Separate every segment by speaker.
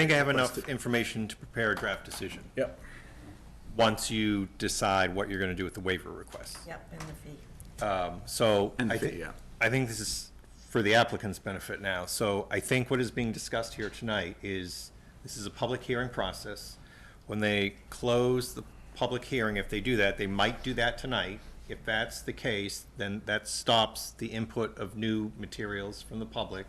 Speaker 1: think I have enough information to prepare a draft decision,
Speaker 2: Yep.
Speaker 1: once you decide what you're gonna do with the waiver request.
Speaker 3: Yep, and the fee.
Speaker 1: So
Speaker 2: And
Speaker 1: I
Speaker 2: the-
Speaker 1: think,
Speaker 2: yeah.
Speaker 1: I think this is for the applicant's benefit now. So I think what is being discussed here tonight is, this is a public hearing process. When they close the public hearing, if they do that, they might do that tonight. If that's the case, then that stops the input of new materials from the public.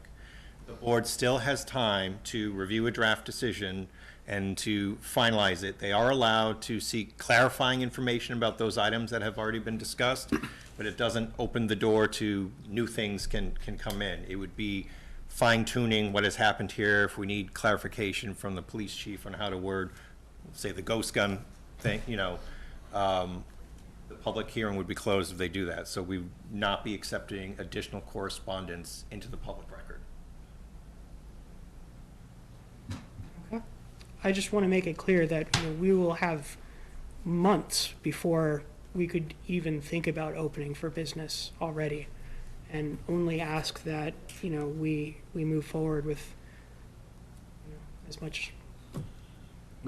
Speaker 1: The board still has time to review a draft decision and to finalize it. They are allowed to seek clarifying information about those items that have already been discussed, but it doesn't open the door to new things can, can come in. It would be fine tuning what has happened here, if we need clarification from the police chief on how to word, say, the ghost gun thing, you know, um, the public hearing would be closed if they do that, so we would not be accepting additional correspondence into the public record.
Speaker 4: I just want to make it clear that you know, we will have months before we could even think about opening for business already, and only ask that you know we we move forward with you know, as much.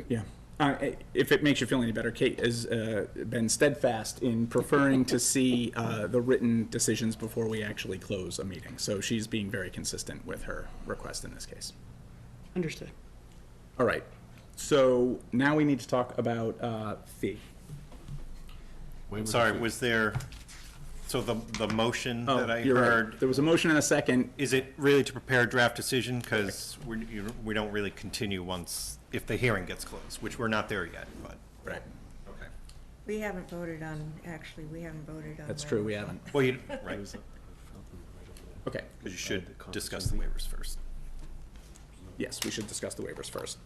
Speaker 2: Yeah. Uh, i- if it makes you feel any better, Kate has uh, been steadfast in preferring to see uh, the written decisions before we actually close a meeting. So she's being very consistent with her request in this case.
Speaker 4: Understood.
Speaker 2: All right. So now we need to talk about uh, fee.
Speaker 1: Sorry, was there, so the, the motion that I
Speaker 2: Oh, you're right.
Speaker 1: heard,
Speaker 2: There was a motion and a second.
Speaker 1: is it really to prepare a draft decision? Because we, you- we don't really continue once, if the hearing gets closed, which we're not there yet, but.
Speaker 2: Right.
Speaker 1: Okay.
Speaker 3: We haven't voted on, actually, we haven't voted on.
Speaker 2: That's true. We haven't.
Speaker 1: Well, you, right, because
Speaker 2: Okay.
Speaker 1: you should discuss the waivers first.
Speaker 2: Yes, we should discuss the waivers first.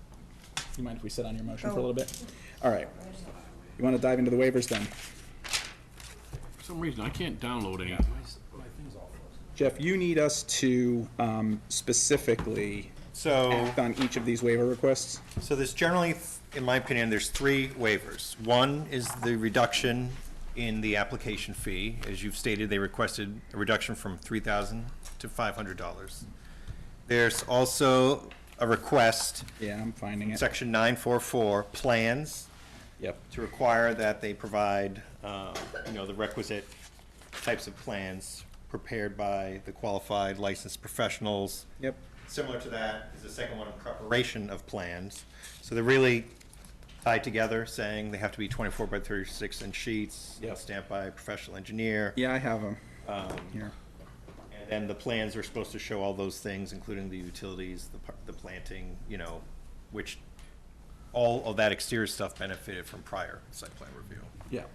Speaker 2: You mind if we sit on your motion for a little bit? All right. You want to dive into the waivers then?
Speaker 5: For some reason, I can't download anything.
Speaker 2: Jeff, you need us to um, specifically
Speaker 1: So,
Speaker 2: act on each of these waiver requests.
Speaker 1: so there's generally, in my opinion, there's three waivers. One is the reduction in the application fee. As you've stated, they requested a reduction from three thousand to five hundred dollars. There's also a request
Speaker 2: Yeah, I'm finding it.
Speaker 1: Section 944, plans,
Speaker 2: Yep.
Speaker 1: to require that they provide, uh, you know, the requisite types of plans prepared by the qualified licensed professionals.
Speaker 2: Yep.
Speaker 1: Similar to that is the second one, preparation of plans. So they're really tied together, saying they have to be 24 by 36 inch sheets,
Speaker 2: Yep.
Speaker 1: stamped by a professional engineer.
Speaker 2: Yeah, I have them here.
Speaker 1: And then the plans are supposed to show all those things, including the utilities, the, par- the planting, you know, which all of that exterior stuff benefited from prior site plan review.
Speaker 2: Yeah.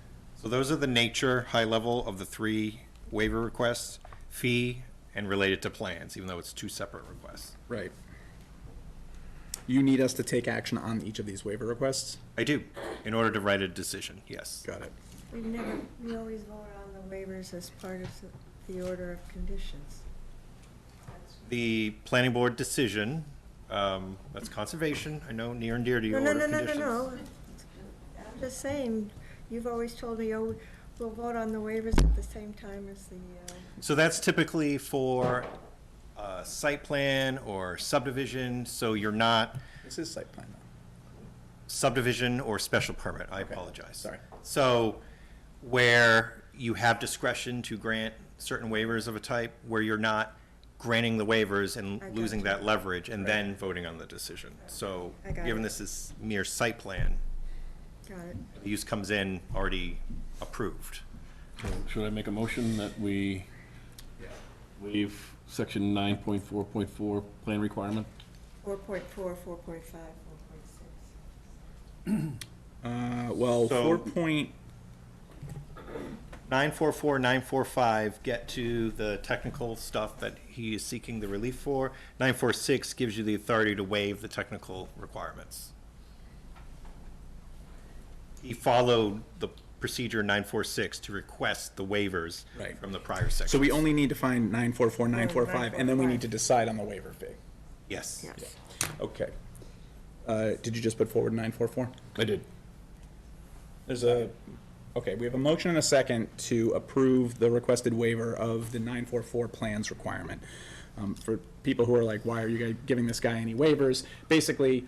Speaker 1: So those are the nature, high level of the three waiver requests, fee and related to plans, even though it's two separate requests.
Speaker 2: Right. You need us to take action on each of these waiver requests?
Speaker 1: I do, in order to write a decision, yes.
Speaker 2: Got it.
Speaker 3: We never, we always vote on the waivers as part of the order of conditions.
Speaker 1: The planning board decision, um, that's conservation, I know near and dear to your
Speaker 3: No,
Speaker 1: order
Speaker 3: no, no,
Speaker 1: of
Speaker 3: no, no,
Speaker 1: conditions.
Speaker 3: no. I'm just saying, you've always told me, oh, we'll vote on the waivers at the same time as the, uh,
Speaker 1: So that's typically for a site plan or subdivision, so you're not
Speaker 2: This is site plan though.
Speaker 1: subdivision or special permit, I apologize.
Speaker 2: sorry.
Speaker 1: So where you have discretion to grant certain waivers of a type, where you're not granting the waivers and
Speaker 3: I got
Speaker 1: losing
Speaker 3: you.
Speaker 1: that leverage and then voting on the decision. So
Speaker 3: I got
Speaker 1: given
Speaker 3: it.
Speaker 1: this is mere site plan,
Speaker 3: got it.
Speaker 1: the use comes in already approved.
Speaker 5: Should I make a motion that we waive section nine point four point four plan requirement?
Speaker 3: Four point four, four point five, four point six.
Speaker 2: Uh, well,
Speaker 1: So-
Speaker 2: four point,
Speaker 1: 944, 945 get to the technical stuff that he is seeking the relief for. 946 gives you the authority to waive the technical requirements. He followed the procedure 946 to request the waivers
Speaker 2: Right.
Speaker 1: from the prior section.
Speaker 2: so we only need to find nine four four, nine four five, and then we
Speaker 3: 945.
Speaker 2: need to decide on the waiver fee.
Speaker 1: Yes.
Speaker 3: Yes.
Speaker 2: Okay. Uh, did you just put forward nine four four?
Speaker 5: I did.
Speaker 2: There's a, okay, we have a motion and a second to approve the requested waiver of the 944 plans requirement. Um, For people who are like, why are you guy- giving this guy any waivers? Basically,